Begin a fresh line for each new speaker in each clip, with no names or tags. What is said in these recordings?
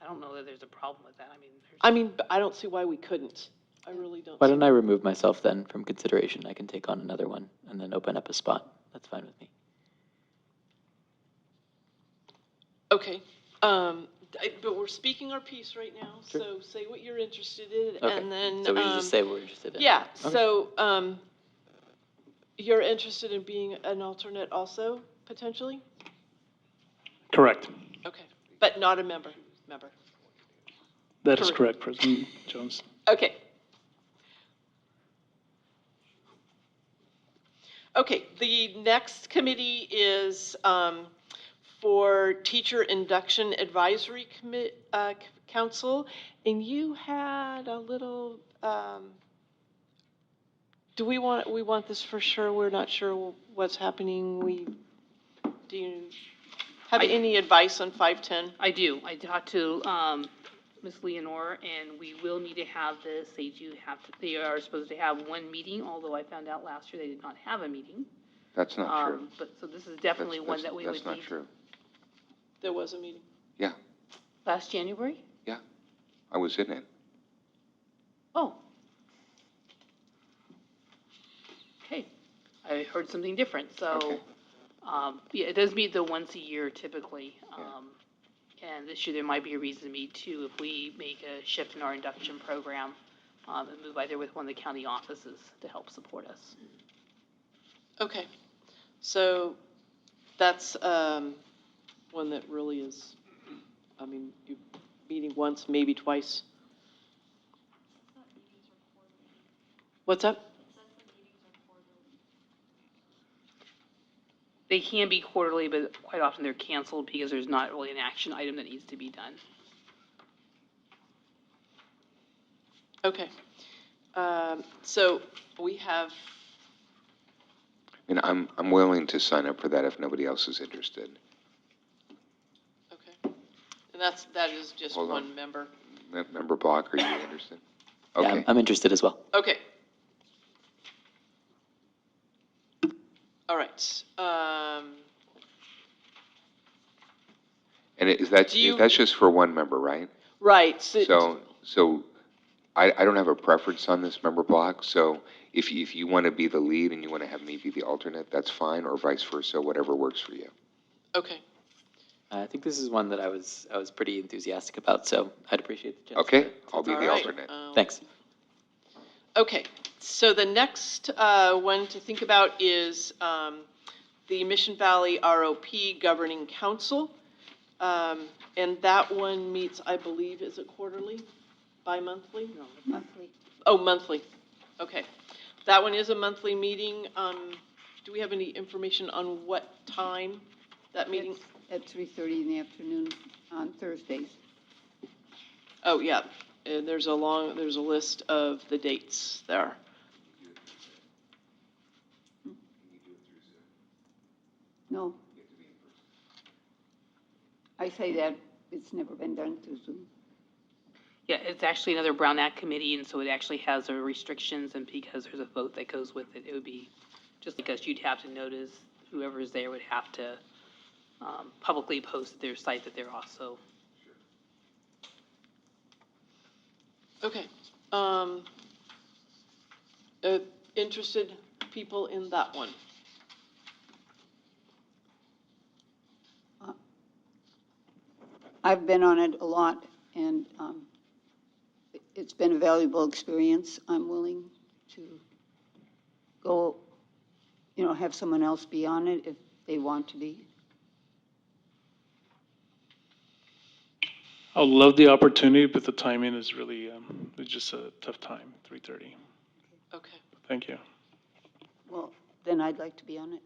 I don't know that there's a problem with that, I mean, there's.
I mean, but I don't see why we couldn't. I really don't.
Why
see-
don't I remove myself then from consideration? I can take on another one and then open up a spot. That's fine with me.
Okay, um, I- but we're speaking our piece right now,
Sure.
so say what you're interested in,
Okay.
and then,
So we should
um,
just say we're interested in.
Yeah,
Okay.
so, um, you're interested in being an alternate also, potentially?
Correct.
Okay, but not a member, member.
That is
Correct.
correct, President Jones.
Okay. Okay, the next committee is um, for Teacher Induction Advisory Commi- uh, c- Council, and you had a little, um, do we want, we want this for sure? We're not sure what's happening. We, do you have
I-
any advice on 510?
I do. I talked to, um, Ms. Leonore, and we will need to have this, they do have, to- they are supposed to have one meeting, although I found out last year they did not have a meeting.
That's not true.
Um, But, so this is
That's-
definitely one
that's-
that we would need.
That's not true.
There was a meeting.
Yeah,
Last January?
yeah. I was in it.
Oh. Okay, I heard something different, so,
Okay.
um, yeah, it does meet the once a year typically.
Yeah.
Um, and this year there might be a reason to meet too, if we make a shift in our induction program, um, and move either with one of the county offices to help support us.
Okay, so that's um, one that really is, I mean, you meeting once, maybe twice. What's up?
They can be quarterly, but quite often they're canceled because there's not really an action item that needs to be done.
Okay. Um, So we have,
And I'm, I'm willing to sign up for that if nobody else is interested.
okay, and that's, that is just
Hold on.
one member.
Mem- Member Block, are you interested?
Yeah, I'm-
Okay,
I'm interested as well.
Okay. All right. um,
and it- is that,
Do you-
that's just for one member, right?
Right,
So, so I, I don't have a preference on this member block, so if you, if you want to be the lead and you want to have me be the alternate, that's fine, or vice versa, whatever works for you.
okay.
Uh, I think this is one that I was I was pretty enthusiastic about, so I'd appreciate the chance.
Okay, I'll be
All
the
right,
alternate.
um,
Thanks.
Okay, so the next uh, one to think about is um, the Mission Valley ROP Governing Council. Um, And that one meets, I believe, is it quarterly, bi-monthly?
No, monthly.
Oh, monthly, okay. That one is a monthly meeting. Um, Do we have any information on what time that meeting?
It's At three thirty in the afternoon on Thursdays.
Oh, yeah, and there's a long, there's a list of the dates there.
No. I say that, it's never been done through Zoom.
Yeah, it's actually another Brown Act committee, and so it actually has their restrictions, and because there's a vote that goes with it, it would be, just like us, you'd have to notice, whoever's there would have to um, publicly post at their site that they're also.
Okay, um, uh, interested people in that one?
I've been on it a lot, and um, it- it's been a valuable experience. I'm willing to go, you know, have someone else be on it if they want to be.
I would love the opportunity, but the timing is really, um, it's just a tough time, 3:30.
Okay,
Thank you.
Well, then I'd like to be on it.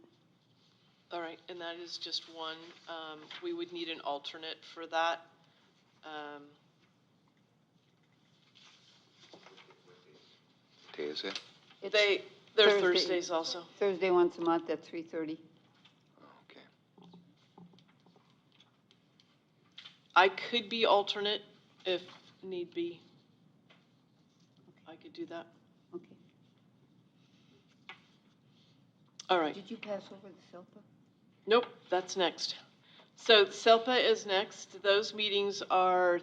all right, and that is just one. Um, we would need an alternate for that. Um,
Day is it?
It's
They, they're
Thursday.
Thursdays also.
Thursday once a month at three thirty.
Okay.
I could be alternate if need be. I could do that.
Okay.
All right.
Did you pass over the SELPA?
Nope, that's next. So SELPA is next. Those meetings are